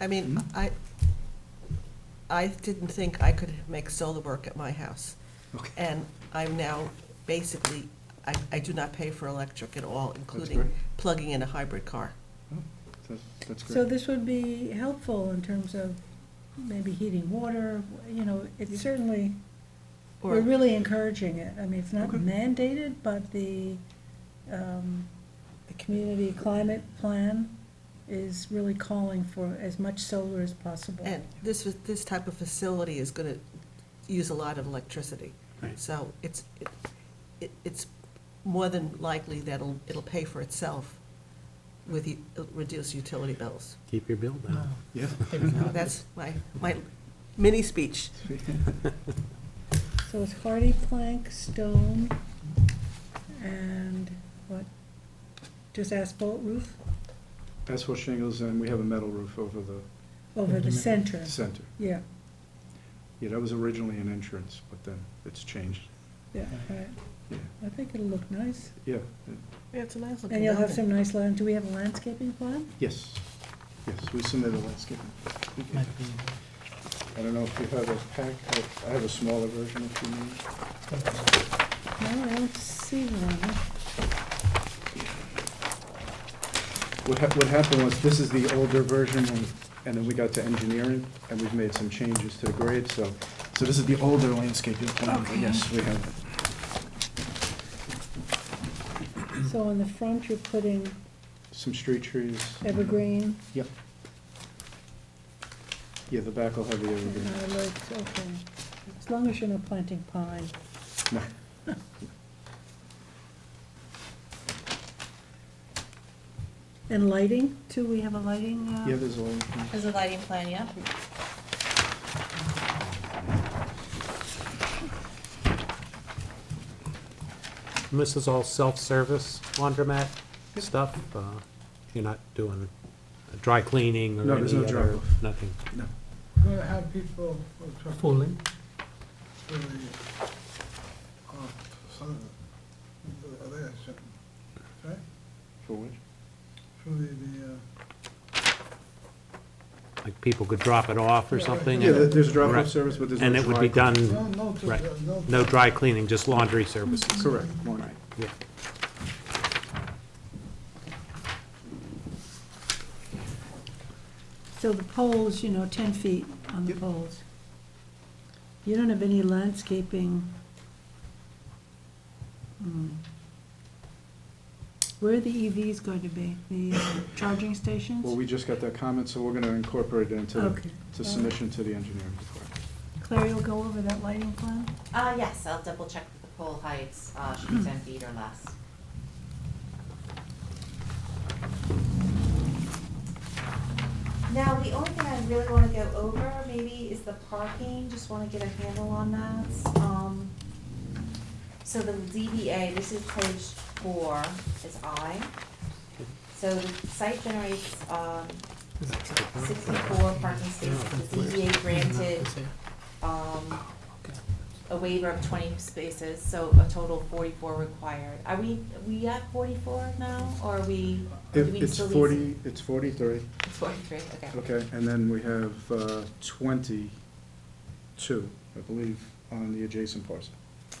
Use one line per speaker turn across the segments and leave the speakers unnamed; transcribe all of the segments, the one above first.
I
Hmm?
mean, I, I didn't think I could make solar work at my house.
Okay.
And I'm now basically, I, I do not pay for electric at all, including
great.
plugging in a hybrid car.
That- That's
So
great.
this would be helpful in terms of maybe heating water, you know, it's certainly,
Or-
we're really encouraging it. I mean, it's not
Okay.
mandated, but the, um, the community climate plan is really calling for as much solar as possible.
And this, was- this type of facility is gonna use a lot of electricity.
Right.
So it's, it- it, it's more than likely that it'll, it'll pay for itself with u- reduced utility bills.
Keep your bill down.
Yeah.
That's my, my mini speech.
So it's hardy plank, stone, and what, just asphalt roof
Asphalt shingles, and we have a metal roof over the
over the
Mm-hmm.
center,
center.
yeah,
Yeah, that was originally an entrance, but then it's changed.
yeah, right.
Yeah,
I think it'll look nice.
yeah,
Yeah, it's a nice looking
And you'll have some nice land, do we have a landscaping plan?
yes, yes, we submitted a landscaping. I don't know if you have a pack, I- I have a smaller version if you need.
No, I don't see one.
What hap, what happened was, this is the older version, and- and then we got to engineering, and we've made some changes to the grade, so, so this is the older landscaping plan, but yes, we have it.
So on the front, you're putting
Some street trees.
evergreen
Yep. Yeah, the back will have the
and
evergreen.
lights, okay. As long as you're not planting pine.
No.
Oh.
And lighting, too, we have a lighting, uh?
Yeah, there's a little.
There's a lighting plan, yeah.
And This is all self-service laundromat stuff? Uh, You're not doing a dry cleaning or
No,
any
there's no dry
other,
off.
nothing?
No.
Going to have people for truck-
Fooling?
for the, uh, some of the, the election, right?
For which?
For the, the, uh,
Like people could drop it off or
Yeah,
something?
Yeah,
and-
there- there's a
Right.
drop-off service, but there's no
And it would be
dry-
no,
done,
no, to-
right.
no.
no dry cleaning, just laundry services?
Correct, laundry.
Yeah.
So the poles, you know, ten feet on the
Yep.
poles. You don't have any landscaping. Hmm. Where are the EVs going to be? The uh, charging stations?
Well, we just got that comment, so we're gonna incorporate it into,
Okay.
to submission to the engineering department.
Claire, you'll go over that lighting plan?
Uh, yes, I'll double check that the pole heights, uh, should be ten feet or less. Now, the only thing I really wanna go over maybe is the parking, just wanna get a handle on that. Um, so the ZBA, this is page four, is I. So the site generates, um, sixty-four parking spaces, the ZBA granted, um, a waiver of twenty spaces, so a total of forty-four required. Are we, we at forty-four now, or are we, do
It-
we
It's
still need?
forty, it's forty-three,
It's forty-three, okay.
okay, and then we have uh, twenty-two, I believe, on the adjacent parcel,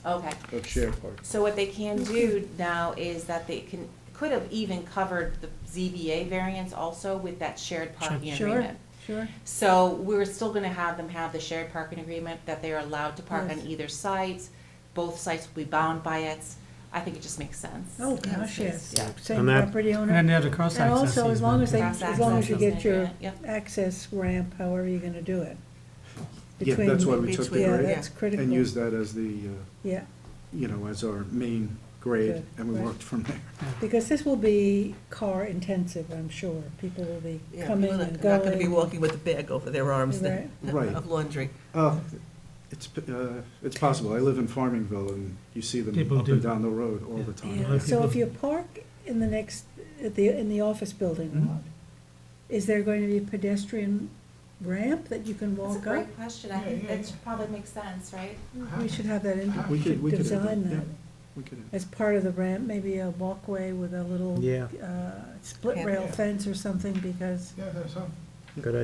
Okay,
of shared park.
so what they can do now is that they can, could have even covered the ZBA variance also with that shared parking
Sure.
agreement.
Sure.
So we're still gonna have them have the shared parking agreement, that they are allowed to park on
Yes.
either site, both sites will be bound by it. I think it just makes sense.
Oh, gosh, yes.
Yeah.
Same
And that-
property
And then
owner.
they have the cross
And also, as long as they,
Cross
as long as you
access.
get your
Yeah.
access ramp, however you're gonna do it.
Yeah, that's why we took the
between-
Yeah,
grade
that's
yeah.
critical.
and used that as the, uh,
Yeah,
you know, as our main grade,
Good,
and we
right.
worked from there.
because this will be car intensive, I'm sure. People will be
Yeah,
coming
people are
and going.
Not gonna be walking with a bag over their arms that-
Right.
of laundry.
Oh, it's, p- uh, it's possible. I live in Farmingville, and you see them
People
up and
do.
down the road all the time.
Yeah, so if you park in the next, at the, in the office building
Hmm?
Mhm.
lot, is there going to be a pedestrian ramp that you can
That's a
walk up?
great question, I think that probably makes sense, right?
We should have that in,
We could, we could.
design
yeah,
that.
We could.
as part of the ramp, maybe a walkway with a little
Yeah.
uh, split rail
Yeah.
fence or something, because
Yeah, there's some.
Good